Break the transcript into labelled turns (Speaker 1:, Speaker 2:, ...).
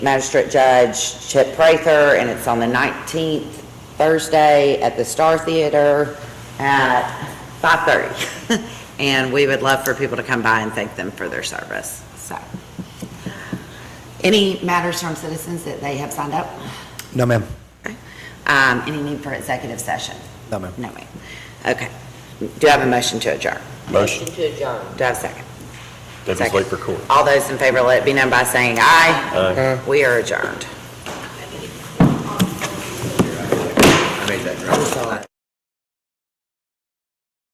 Speaker 1: Magistrate Judge Chip Prather, and it's on the 19th, Thursday, at the Star Theater at 5:30. And we would love for people to come by and thank them for their service, so. Any matters from citizens that they have signed up?
Speaker 2: No, ma'am.
Speaker 1: Um, Any need for executive session?
Speaker 2: No, ma'am.
Speaker 1: No, ma'am. Okay. Do I have a motion to adjourn?
Speaker 3: Motion.
Speaker 1: to adjourn. Do I have a second?
Speaker 3: Debbie's
Speaker 1: Second.
Speaker 3: late for court.
Speaker 1: All those in favor, let it be known by saying aye. Aye. We are adjourned.